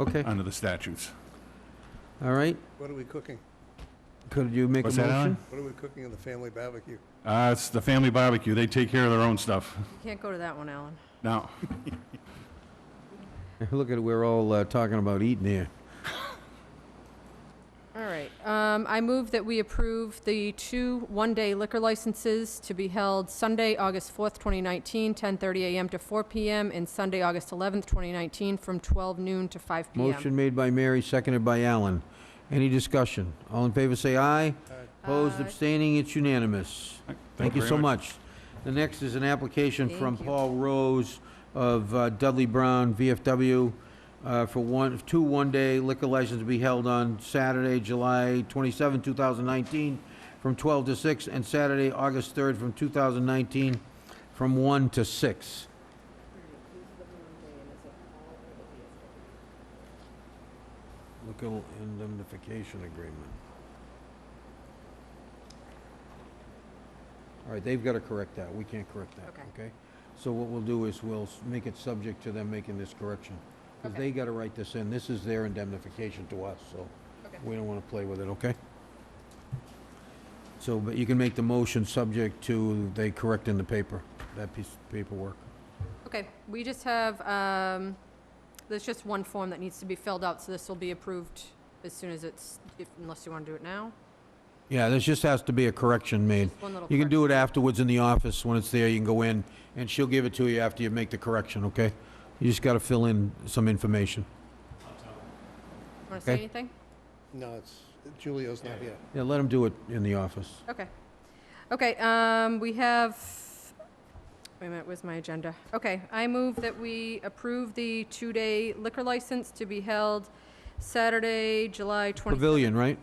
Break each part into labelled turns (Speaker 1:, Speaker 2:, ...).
Speaker 1: Okay,
Speaker 2: under the statutes.
Speaker 1: all right.
Speaker 3: What are we cooking?
Speaker 1: Could you make a
Speaker 2: What's that,
Speaker 1: motion?
Speaker 3: What are we cooking in the family barbecue?
Speaker 2: Uh, It's the family barbecue, they take care of their own stuff.
Speaker 4: You can't go to that one, Alan.
Speaker 2: Now,
Speaker 1: Look at, we're all uh, talking about eating here.
Speaker 4: All right. Um, I move that we approve the two one-day liquor licenses to be held Sunday, August 4th, 2019, 10:30 a.m. to 4 p.m., and Sunday, August 11th, 2019, from 12 noon to 5 p.m.
Speaker 1: Motion made by Mary, seconded by Alan. Any discussion? All in favor, say aye. Opposed,
Speaker 4: Aye.
Speaker 1: abstaining, it's unanimous. Thank you
Speaker 2: very
Speaker 1: so much. The next is an application from
Speaker 4: Thank you.
Speaker 1: Paul Rose of uh, Dudley Brown VFW uh, for one, two one-day liquor licenses to be held on Saturday, July 27, 2019, from 12 to 6, and Saturday, August 3rd, from 2019, from 1 to 6. Local indemnification agreement. All right, they've got to correct that. We can't correct that,
Speaker 4: Okay.
Speaker 1: okay? So what we'll do is we'll s- make it subject to them making this correction. Because
Speaker 4: Okay.
Speaker 1: they got to write this in. This is their indemnification to us, so
Speaker 4: Okay.
Speaker 1: we don't want to play with it, okay? So, but you can make the motion subject to they correcting the paper, that piece of paperwork.
Speaker 4: Okay, we just have, um, there's just one form that needs to be filled out, so this will be approved as soon as it's, if- unless you want to do it now.
Speaker 1: Yeah, this just has to be a correction made.
Speaker 4: One little
Speaker 1: You can
Speaker 4: correction.
Speaker 1: do it afterwards in the office, when it's there, you can go in, and she'll give it to you after you make the correction, okay? You just gotta fill in some information.
Speaker 4: Want to say
Speaker 1: Okay.
Speaker 4: anything?
Speaker 3: No, it's, Julio's not here.
Speaker 1: Yeah, let them do it in the office.
Speaker 4: Okay. Okay, um, we have, wait a minute, where's my agenda? Okay, I move that we approve the two-day liquor license to be held Saturday, July 20,
Speaker 1: Pavilion, right?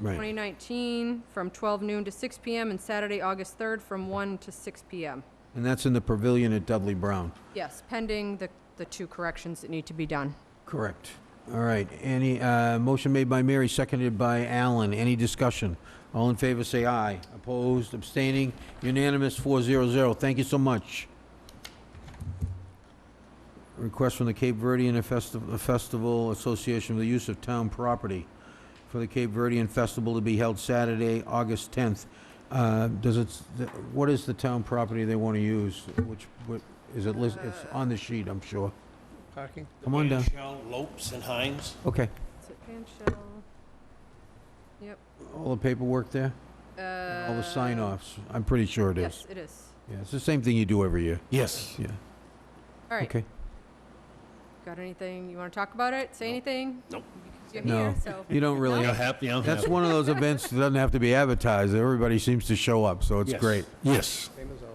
Speaker 1: Right.
Speaker 4: 2019, from 12 noon to 6 PM, and Saturday, August 3rd, from 1 to 6 PM.
Speaker 1: And that's in the pavilion at Dudley Brown.
Speaker 4: Yes, pending the, the two corrections that need to be done.
Speaker 1: Correct. All right, any, uh, motion made by Mary, seconded by Alan. Any discussion? All in favor, say aye. Opposed, abstaining, unanimous, four zero zero. Thank you so much. Request from the Cape Verdean Festi- Festival Association for the use of town property for the Cape Verdean Festival to be held Saturday, August tenth. Uh, does it, what is the town property they want to use? Which, what, is it, lis- it's on the sheet, I'm sure.
Speaker 3: Parking?
Speaker 1: Come on down.
Speaker 5: Vanchel, Lopes, and Hines.
Speaker 1: Okay.
Speaker 4: Is it Van Shell?
Speaker 1: All the paperwork there? All the
Speaker 4: Uh,
Speaker 1: sign-offs? I'm pretty sure it is.
Speaker 4: Yes, it is.
Speaker 1: Yeah, it's the same thing you do every year.
Speaker 5: Yes.
Speaker 1: Yeah,
Speaker 4: All right,
Speaker 1: okay.
Speaker 4: got anything, you want to talk about it, say anything?
Speaker 5: Nope.
Speaker 4: You're
Speaker 1: No.
Speaker 4: here, so.
Speaker 1: You don't really,
Speaker 5: You're happy, I'm
Speaker 1: that's
Speaker 5: happy.
Speaker 1: one of those events that doesn't have to be advertised. Everybody seems to show up, so it's
Speaker 5: Yes.
Speaker 1: great.
Speaker 5: Yes.
Speaker 3: Same as always.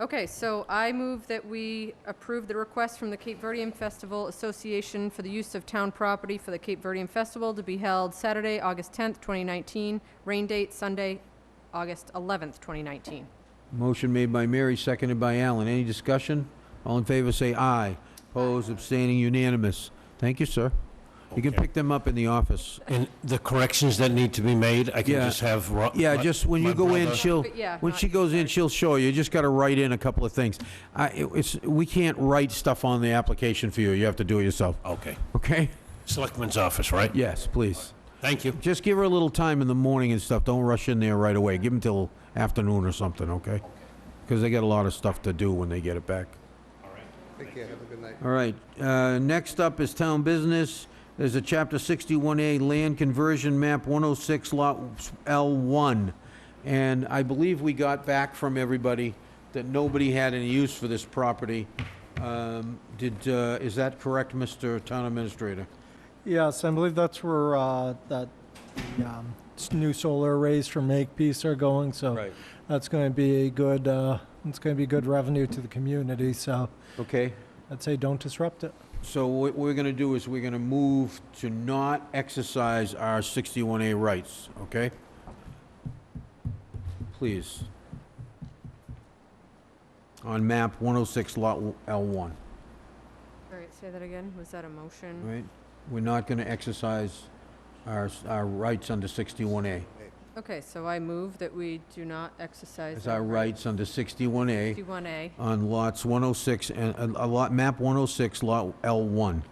Speaker 4: Okay, so I move that we approve the request from the Cape Verdean Festival Association for the use of town property for the Cape Verdean Festival to be held Saturday, August 10th, 2019, rain date Sunday, August 11th, 2019.
Speaker 1: Motion made by Mary, seconded by Alan. Any discussion? All in favor, say aye. Opposed, abstaining, unanimous. Thank you, sir. You can
Speaker 5: Okay.
Speaker 1: pick them up in the office.
Speaker 5: And the corrections that need to be made, I can
Speaker 1: Yeah.
Speaker 5: just have. Ro-
Speaker 1: Yeah,
Speaker 5: my-
Speaker 1: just when you
Speaker 5: my
Speaker 1: go in,
Speaker 5: brother-
Speaker 1: she'll,
Speaker 4: But yeah,
Speaker 1: when
Speaker 4: not
Speaker 1: she goes in, she'll show you. You just got to write in a couple of things. I, it- it's, we can't write stuff on the application for you. You have to do it yourself.
Speaker 5: Okay.
Speaker 1: Okay?
Speaker 5: Selectman's office, right?
Speaker 1: Yes, please.
Speaker 5: Thank you.
Speaker 1: Just give her a little time in the morning and stuff. Don't rush in there right away. Give them till afternoon or something, okay? Because they got a lot of stuff to do when they get it back.
Speaker 3: Take care, have a good night.
Speaker 1: All right, uh, next up is town business. There's a Chapter 61A land conversion map 106 Lot L1. And I believe we got back from everybody that nobody had any use for this property. Um, Did, uh, is that correct, Mr. Town Administrator?
Speaker 6: Yes, I believe that's where uh, that the, um, s- new solar arrays from Makepeace are going. So that's going to be a good. Uh, it's going to be good revenue to the community. So
Speaker 1: Okay.
Speaker 6: I'd say don't disrupt it.
Speaker 1: So what we're gonna do is we're gonna move to not exercise our 61A rights, okay? Please. On map 106, lot L1,
Speaker 4: All right, say that again, was that a motion?
Speaker 1: right? We're not gonna exercise our, our rights under 61A.
Speaker 4: Okay, so I move that we do not exercise.
Speaker 1: It's our rights under 61A
Speaker 4: 51A.
Speaker 1: oh on lots 106 and, uh, uh, oh lot, map 106, lot L1.